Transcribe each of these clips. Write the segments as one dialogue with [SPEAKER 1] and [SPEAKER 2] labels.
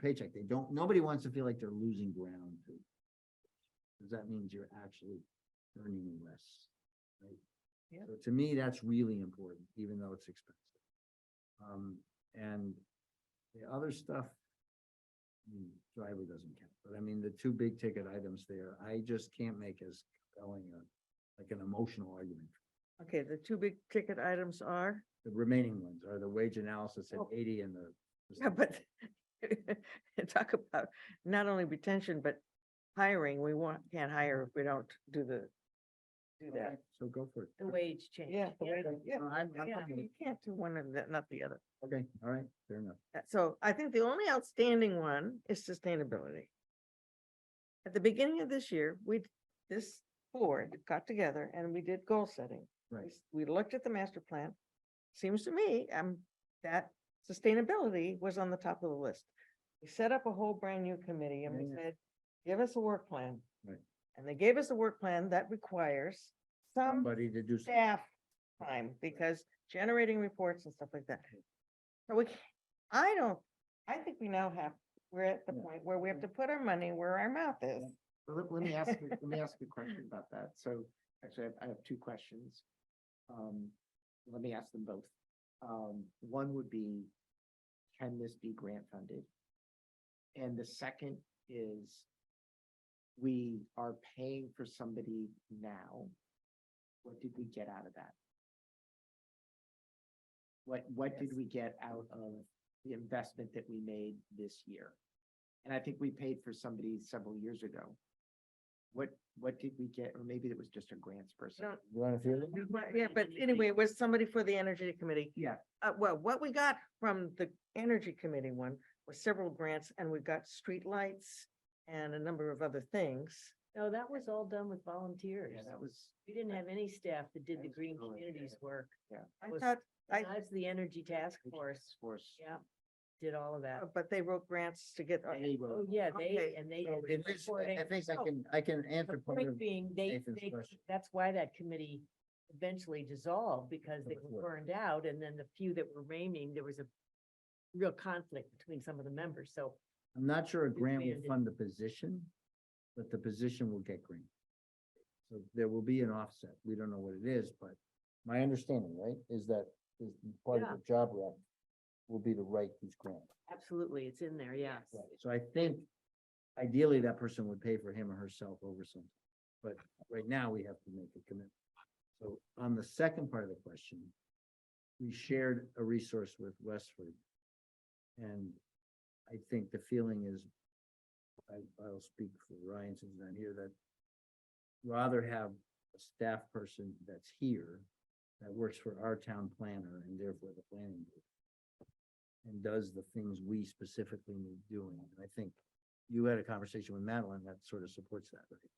[SPEAKER 1] paycheck. They don't, nobody wants to feel like they're losing ground to. Cause that means you're actually earning less. right?
[SPEAKER 2] Yeah.
[SPEAKER 1] So to me, that's really important, even though it's expensive. Um, and the other stuff. mm, Driver doesn't count, but I mean, the two big ticket items there, I just can't make as compelling a, like an emotional argument.
[SPEAKER 2] Okay, the two big ticket items are,
[SPEAKER 1] The remaining ones are the wage analysis at
[SPEAKER 2] Oh.
[SPEAKER 1] eighty and the. the
[SPEAKER 2] yeah, but talk about not only retention, but hiring. We want, can't hire if we don't do the, do that.
[SPEAKER 1] Okay, So go for it.
[SPEAKER 3] The wage change.
[SPEAKER 2] Yeah, the way-
[SPEAKER 1] Okay,
[SPEAKER 2] yeah,
[SPEAKER 1] no, I'm- I'm
[SPEAKER 2] yeah,
[SPEAKER 1] fine with
[SPEAKER 2] you
[SPEAKER 1] it.
[SPEAKER 2] can't do one and the- not the other.
[SPEAKER 1] Okay, all right, fair enough.
[SPEAKER 2] Uh, So I think the only outstanding one is sustainability. At the beginning of this year, we, this board got together and we did goal setting. We
[SPEAKER 1] Right,
[SPEAKER 2] s- We looked at the master plan. Seems to me, um, that sustainability was on the top of the list. We set up a whole brand new committee and we
[SPEAKER 1] Yeah, yeah.
[SPEAKER 2] said, give us a work plan.
[SPEAKER 1] Right.
[SPEAKER 2] And they gave us a work plan that requires
[SPEAKER 3] Um,
[SPEAKER 2] some
[SPEAKER 1] somebody to do. some-
[SPEAKER 2] staff time because generating reports and stuff like that. So we, can't- I don't, I think we now have, we're at the
[SPEAKER 1] Yeah.
[SPEAKER 2] point where we have to put our money where our mouth is.
[SPEAKER 4] Well, Let, let me ask, you- let me ask you a question about that. So actually, I have- I have two questions. Um, let me ask them both. Um, one would be, can this be grant funded? And the second is, we are paying for somebody now. What did we get out of that? What, what did we get out of the investment that we made this year? And I think we paid for somebody several years ago. What, what did we get? Or maybe it was just a grants person.
[SPEAKER 2] Don't-
[SPEAKER 1] You wanna feel it?
[SPEAKER 2] Yeah, but anyway, it was somebody for the energy committee.
[SPEAKER 4] Yeah.
[SPEAKER 2] Uh, well, what we got from the energy committee one was several grants and we got streetlights and a number of other things.
[SPEAKER 3] No, that was all done with volunteers.
[SPEAKER 4] Yeah, that was,
[SPEAKER 3] We didn't have any staff that did the
[SPEAKER 4] That was
[SPEAKER 3] green
[SPEAKER 4] really good.
[SPEAKER 3] communities work.
[SPEAKER 2] I
[SPEAKER 3] Was-
[SPEAKER 2] thought, I,
[SPEAKER 3] That's the energy task
[SPEAKER 4] Energy
[SPEAKER 3] force.
[SPEAKER 4] force.
[SPEAKER 3] Yeah, did all of that.
[SPEAKER 2] but they wrote grants to get,
[SPEAKER 4] They were-
[SPEAKER 3] Oh, yeah,
[SPEAKER 2] Oh, okay,
[SPEAKER 3] they, and they
[SPEAKER 1] So
[SPEAKER 3] did
[SPEAKER 1] it
[SPEAKER 3] the
[SPEAKER 1] is- I I
[SPEAKER 3] reporting.
[SPEAKER 1] think I
[SPEAKER 3] So,
[SPEAKER 1] can, I can answer
[SPEAKER 3] The
[SPEAKER 1] part of,
[SPEAKER 3] point being, Oh, they,
[SPEAKER 1] Nathan's
[SPEAKER 3] they,
[SPEAKER 1] question.
[SPEAKER 3] that's why that committee eventually dissolved because they
[SPEAKER 1] Number
[SPEAKER 3] were
[SPEAKER 1] four.
[SPEAKER 3] burned out and then the few that were remaining, there was a real conflict between some of the members. So
[SPEAKER 1] I'm not sure a grant will
[SPEAKER 3] expanded.
[SPEAKER 1] fund the position, but the position will get grant. So there will be an offset. We don't know what it is, but my understanding, right, is that is part of
[SPEAKER 3] Yeah.
[SPEAKER 1] the job rep will be to write these grants.
[SPEAKER 3] absolutely, it's in there, yes.
[SPEAKER 1] So I think ideally that person would pay for him or herself over something, but right now we have to make a commitment. So on the second part of the question, we shared a resource with Westford. And I think the feeling is, I, I'll speak for Ryan since he's not here, that rather have a staff person that's here, that works for our town planner and therefore the planning board and does the things we specifically need doing. And I think you had a conversation with Madeline that sort of supports that, right?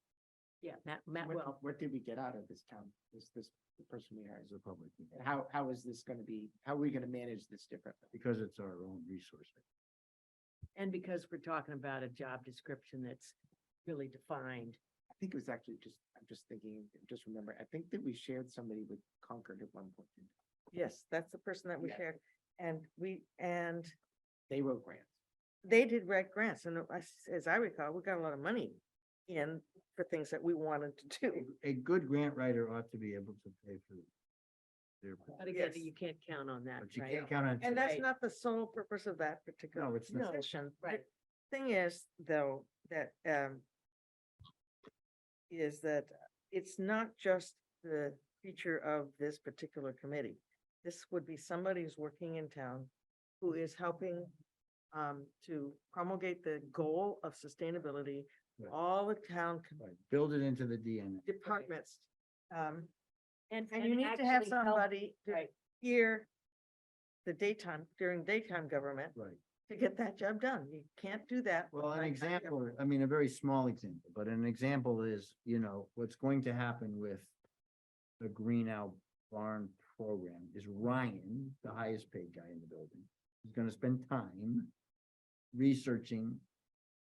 [SPEAKER 3] Yeah, Matt, Matt,
[SPEAKER 4] What,
[SPEAKER 3] well,
[SPEAKER 4] what did we get out of this town, this, this the person we hired?
[SPEAKER 1] As a public, meeting,
[SPEAKER 4] And how, how is this gonna be, how are we gonna manage this differently?
[SPEAKER 1] because it's our own resource.
[SPEAKER 3] and because we're talking about a job description that's really defined.
[SPEAKER 4] I think it was actually just, I'm just thinking, just remember, I think that we shared somebody with Concord at one point.
[SPEAKER 2] yes, that's the person that we
[SPEAKER 4] Yeah.
[SPEAKER 2] shared. And we, and
[SPEAKER 4] They wrote grants.
[SPEAKER 2] they did write grants and I s- as I recall, we got a lot of money in for things that we wanted to do.
[SPEAKER 1] A- A good grant writer ought to be able to pay for their,
[SPEAKER 3] But again,
[SPEAKER 2] Yes.
[SPEAKER 3] you can't count on that,
[SPEAKER 1] but you
[SPEAKER 3] right?
[SPEAKER 1] can't count on.
[SPEAKER 2] And that's
[SPEAKER 3] Right.
[SPEAKER 2] not the sole purpose of that
[SPEAKER 1] No,
[SPEAKER 2] particular
[SPEAKER 1] it's not. No,
[SPEAKER 2] position. The
[SPEAKER 3] right.
[SPEAKER 2] Thing is, though, that, um, is that it's not just the feature of this particular committee. This would be somebody who's working in town who is helping, um, to promulgate the goal of sustainability.
[SPEAKER 1] Right.
[SPEAKER 2] All the town com-
[SPEAKER 1] Right, Build it into the DNA.
[SPEAKER 2] departments. Um, and
[SPEAKER 3] and
[SPEAKER 2] you need to have
[SPEAKER 3] actually help-
[SPEAKER 2] somebody to
[SPEAKER 3] Right.
[SPEAKER 2] hear the daytime, during daytime government
[SPEAKER 1] Right.
[SPEAKER 2] to get that job done. You can't do that. with
[SPEAKER 1] Well, an
[SPEAKER 2] nighttime government.
[SPEAKER 1] example, I mean, a very small example, but an example is, you know, what's going to happen with the Green Owl Barn program is Ryan, the highest paid guy in the building, is gonna spend time researching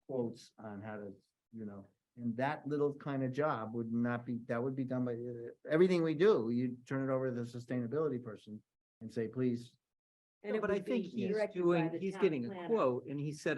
[SPEAKER 1] quotes on how to, you know, and that little kind of job would not be, that would be done by, uh, everything we do, you turn it over to the sustainability person and say, please
[SPEAKER 3] And it
[SPEAKER 5] But I
[SPEAKER 3] would be
[SPEAKER 5] think he's
[SPEAKER 3] directed by
[SPEAKER 5] doing,
[SPEAKER 3] the
[SPEAKER 5] he's
[SPEAKER 3] town
[SPEAKER 5] getting a
[SPEAKER 3] planner.
[SPEAKER 5] quote and he said,